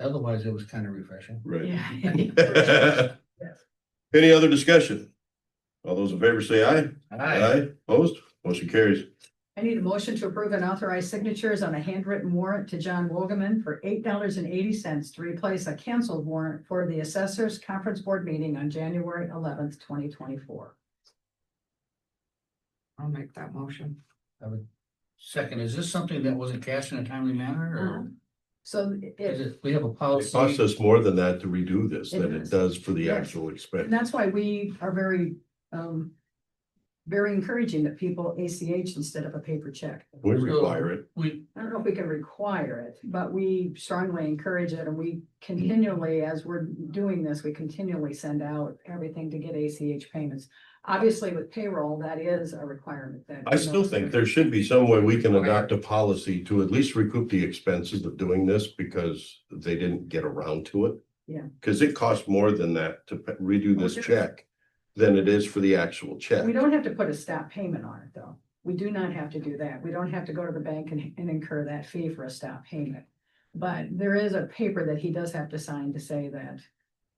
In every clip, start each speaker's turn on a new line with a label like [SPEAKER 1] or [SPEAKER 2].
[SPEAKER 1] Otherwise, it was kind of refreshing.
[SPEAKER 2] Right.
[SPEAKER 3] Yeah.
[SPEAKER 2] Any other discussion? All those in favor say aye.
[SPEAKER 1] Aye.
[SPEAKER 2] Opposed? Motion carries.
[SPEAKER 3] I need a motion to approve and authorize signatures on a handwritten warrant to John Wogoman for eight dollars and eighty cents to replace a canceled warrant for the assessors conference board meeting on January eleventh, twenty twenty-four.
[SPEAKER 4] I'll make that motion.
[SPEAKER 1] I would- Second, is this something that wasn't cashed in a timely
[SPEAKER 3] Uh-huh.
[SPEAKER 1] manner
[SPEAKER 3] Um, So
[SPEAKER 1] or is
[SPEAKER 3] it,
[SPEAKER 1] it, we have a
[SPEAKER 2] It
[SPEAKER 1] policy?
[SPEAKER 2] costs us more than that to redo this
[SPEAKER 3] It
[SPEAKER 2] than it
[SPEAKER 3] does.
[SPEAKER 2] does for the
[SPEAKER 3] Yes.
[SPEAKER 2] actual
[SPEAKER 3] and
[SPEAKER 2] expense.
[SPEAKER 3] that's why we are very, um, very encouraging that people ACH instead of a paper check.
[SPEAKER 2] We require it.
[SPEAKER 1] We,
[SPEAKER 3] I don't know if we can require it, but we strongly encourage it and we continually, as we're doing this, we continually send out everything to get ACH payments. Obviously with payroll, that is a requirement that.
[SPEAKER 2] I still think there should be some way we can adopt a policy to at least recoup the expenses of doing this because they didn't get around to it.
[SPEAKER 3] Yeah.
[SPEAKER 2] Cause it costs more than that to redo this
[SPEAKER 3] Okay.
[SPEAKER 2] check than it is for the actual check.
[SPEAKER 3] We don't have to put a stop payment on it though. We do not have to do that. We don't have to go to the bank and, and incur that fee for a stop payment. But there is a paper that he does have to sign to say that.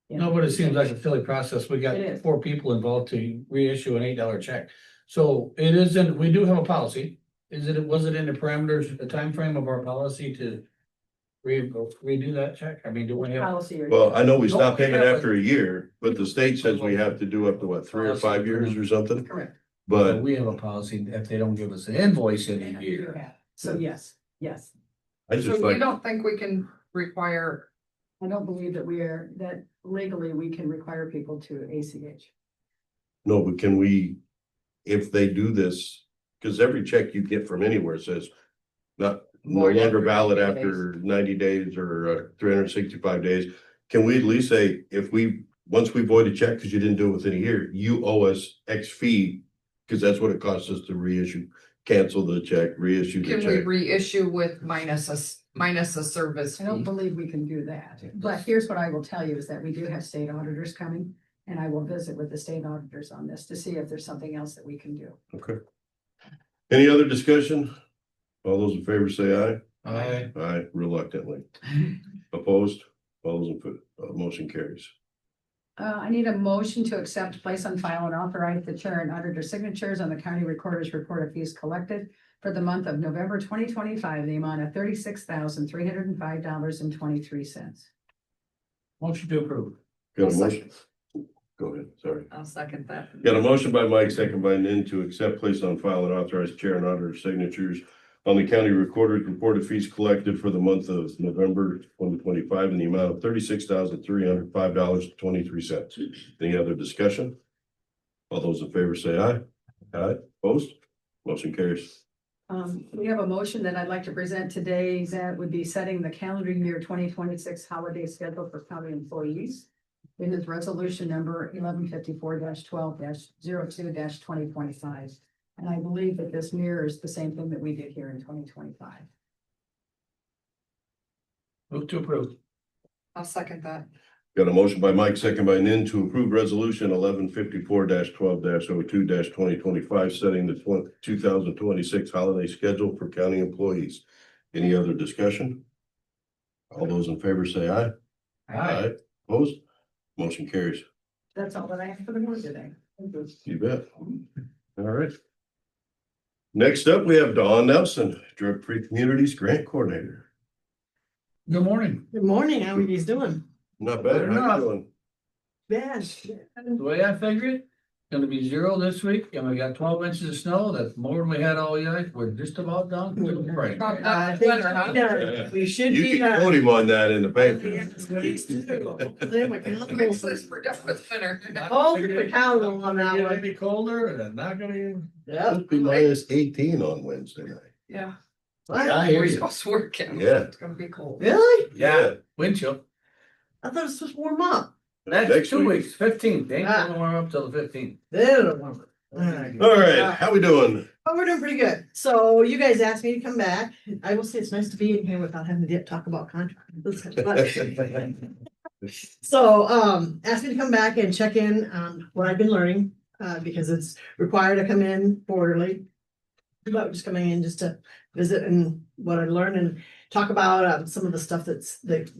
[SPEAKER 3] you know,
[SPEAKER 5] No, but it seems like a silly process. We got
[SPEAKER 3] It is.
[SPEAKER 5] four people involved to reissue an eight dollar check. So it isn't, we do have a policy. Is it, was it in the parameters, the time frame of our policy to re, redo that check? I mean, do we have?
[SPEAKER 3] Policy or.
[SPEAKER 2] Well, I know we
[SPEAKER 5] No,
[SPEAKER 2] stop payment
[SPEAKER 5] yeah, but-
[SPEAKER 2] after a year, but the state says we have to do up to what, three or five years or something?
[SPEAKER 3] Correct.
[SPEAKER 2] But
[SPEAKER 1] we have a policy that if they don't give us an invoice in a year.
[SPEAKER 3] So yes, yes.
[SPEAKER 2] I
[SPEAKER 4] So
[SPEAKER 2] just
[SPEAKER 4] you
[SPEAKER 2] like,
[SPEAKER 4] don't think we can require
[SPEAKER 3] I don't believe that we are, that legally we can require people to ACH.
[SPEAKER 2] no, but can we, if they do this, because every check you get from anywhere says not, no
[SPEAKER 4] Void
[SPEAKER 2] longer
[SPEAKER 4] after
[SPEAKER 2] valid
[SPEAKER 4] 90
[SPEAKER 2] after ninety days or uh, three hundred and sixty-five days. Can we at least say, if we, once we void a check because you didn't do it within a year, you owe us X fee, because that's what it costs us to reissue, cancel the check, reissue the
[SPEAKER 4] Can we
[SPEAKER 2] check.
[SPEAKER 4] reissue with minus a, s- minus a service
[SPEAKER 3] I don't
[SPEAKER 4] fee?
[SPEAKER 3] believe we can do that, but here's what I will tell you is that we do have state auditors coming. And I will visit with the state auditors on this to see if there's something else that we can do.
[SPEAKER 2] Okay. Any other discussion? All those in favor say aye.
[SPEAKER 1] I,
[SPEAKER 2] Aye reluctantly. Opposed? All those in, fa- uh, motion carries.
[SPEAKER 3] Uh, I need a motion to accept, place on file and authorize the chair and auditor signatures on the county recorder's report of fees collected for the month of November twenty twenty-five, the amount of thirty-six thousand, three hundred and five dollars and twenty-three cents.
[SPEAKER 1] motion to approve.
[SPEAKER 2] Got a
[SPEAKER 4] I'll
[SPEAKER 2] motion? Go ahead, sorry.
[SPEAKER 4] I'll second that.
[SPEAKER 2] Got a motion by Mike, second by Nan to accept, place on file and authorize chair and auditor signatures on the county recorder's report of fees collected for the month of November twenty twenty-five in the amount of thirty-six thousand three hundred five dollars twenty-three cents. Any other discussion? All those in favor say aye. Aye, opposed? Motion carries.
[SPEAKER 3] Um, we have a motion that I'd like to present today that would be setting the calendar year twenty twenty-six holiday schedule for county employees. It is resolution number eleven fifty-four twelve 2 twenty twenty-five. And I believe that this mirrors the same thing that we did here in twenty twenty-five.
[SPEAKER 1] Move to approve.
[SPEAKER 4] I'll second that.
[SPEAKER 2] Got a motion by Mike, second by Nin to approve resolution eleven fifty-four twelve 2 twenty twenty-five, setting the two thousand twenty-six holiday schedule for county employees. Any other discussion? All those in favor say aye. Opposed? Motion carries.
[SPEAKER 3] That's all that I have for the board today.
[SPEAKER 2] You bet. All right. Next up, we have Dawn Nelson, Drug Free Communities Grant Coordinator.
[SPEAKER 1] Good morning.
[SPEAKER 6] Good morning, how are you doing?
[SPEAKER 2] Not bad. How you doing?
[SPEAKER 6] Bad.
[SPEAKER 1] The way I figure it, gonna be zero this week and we got twelve inches of snow. That's more than we had all year. We're just about done. Give it a break.
[SPEAKER 6] I think
[SPEAKER 4] Winter, uh, huh?
[SPEAKER 6] we done. We should
[SPEAKER 2] You
[SPEAKER 6] be uh,
[SPEAKER 2] can quote
[SPEAKER 6] done.
[SPEAKER 2] him on that in the
[SPEAKER 6] Yeah,
[SPEAKER 2] paper.
[SPEAKER 6] please do. They were
[SPEAKER 4] Makes us-
[SPEAKER 6] phenomenal.
[SPEAKER 4] We're done with winter.
[SPEAKER 6] All the phenomenal on that
[SPEAKER 1] It's
[SPEAKER 6] one.
[SPEAKER 1] be colder and it's not gonna be.
[SPEAKER 6] Yep.
[SPEAKER 2] It'll be minus eighteen on Wednesday night.
[SPEAKER 4] Yeah.
[SPEAKER 1] I hear
[SPEAKER 4] We're
[SPEAKER 1] you.
[SPEAKER 4] supposed to work it.
[SPEAKER 2] Yeah.
[SPEAKER 4] It's gonna be cold.
[SPEAKER 6] Really?
[SPEAKER 1] Yeah, wind chill.
[SPEAKER 6] I thought it was supposed to warm up.
[SPEAKER 1] That's
[SPEAKER 2] Next
[SPEAKER 1] two
[SPEAKER 2] week.
[SPEAKER 1] weeks, fifteen. They ain't
[SPEAKER 6] Ah.
[SPEAKER 1] gonna warm up till the fifteenth.
[SPEAKER 6] They're the one. Alright.
[SPEAKER 2] All right, how we doing?
[SPEAKER 6] Oh, we're doing pretty good. So you guys asked me to come back. I will say it's nice to be in here without having to talk about contracts. That's kind of fun.
[SPEAKER 2] Oh.
[SPEAKER 6] So, um, asked me to come back and check in on what I've been learning, uh, because it's required to come in quarterly. But just coming in just to visit and what I learned and talk about, um, some of the stuff that's, that